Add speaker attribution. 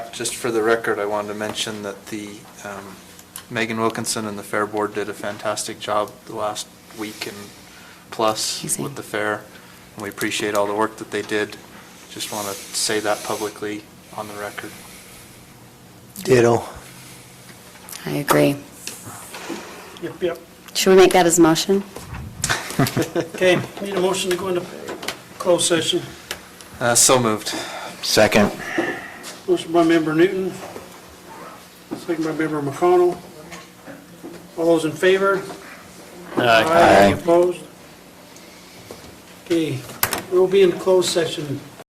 Speaker 1: Just for the record, I wanted to mention that the, um, Megan Wilkinson and the Fair Board did a fantastic job the last week and plus
Speaker 2: Amazing.
Speaker 1: with the fair. And we appreciate all the work that they did. Just want to say that publicly on the record.
Speaker 3: Ditto.
Speaker 2: I agree.
Speaker 4: Yep, yep.
Speaker 2: Should we make that as a motion?
Speaker 4: Okay, need a motion to go into closed session.
Speaker 1: Uh, So moved.
Speaker 3: Second.
Speaker 4: Motion by member Newton, second by member McConnell. All those in favor?
Speaker 3: Aye.
Speaker 4: Opposed? Okay, we'll be in closed session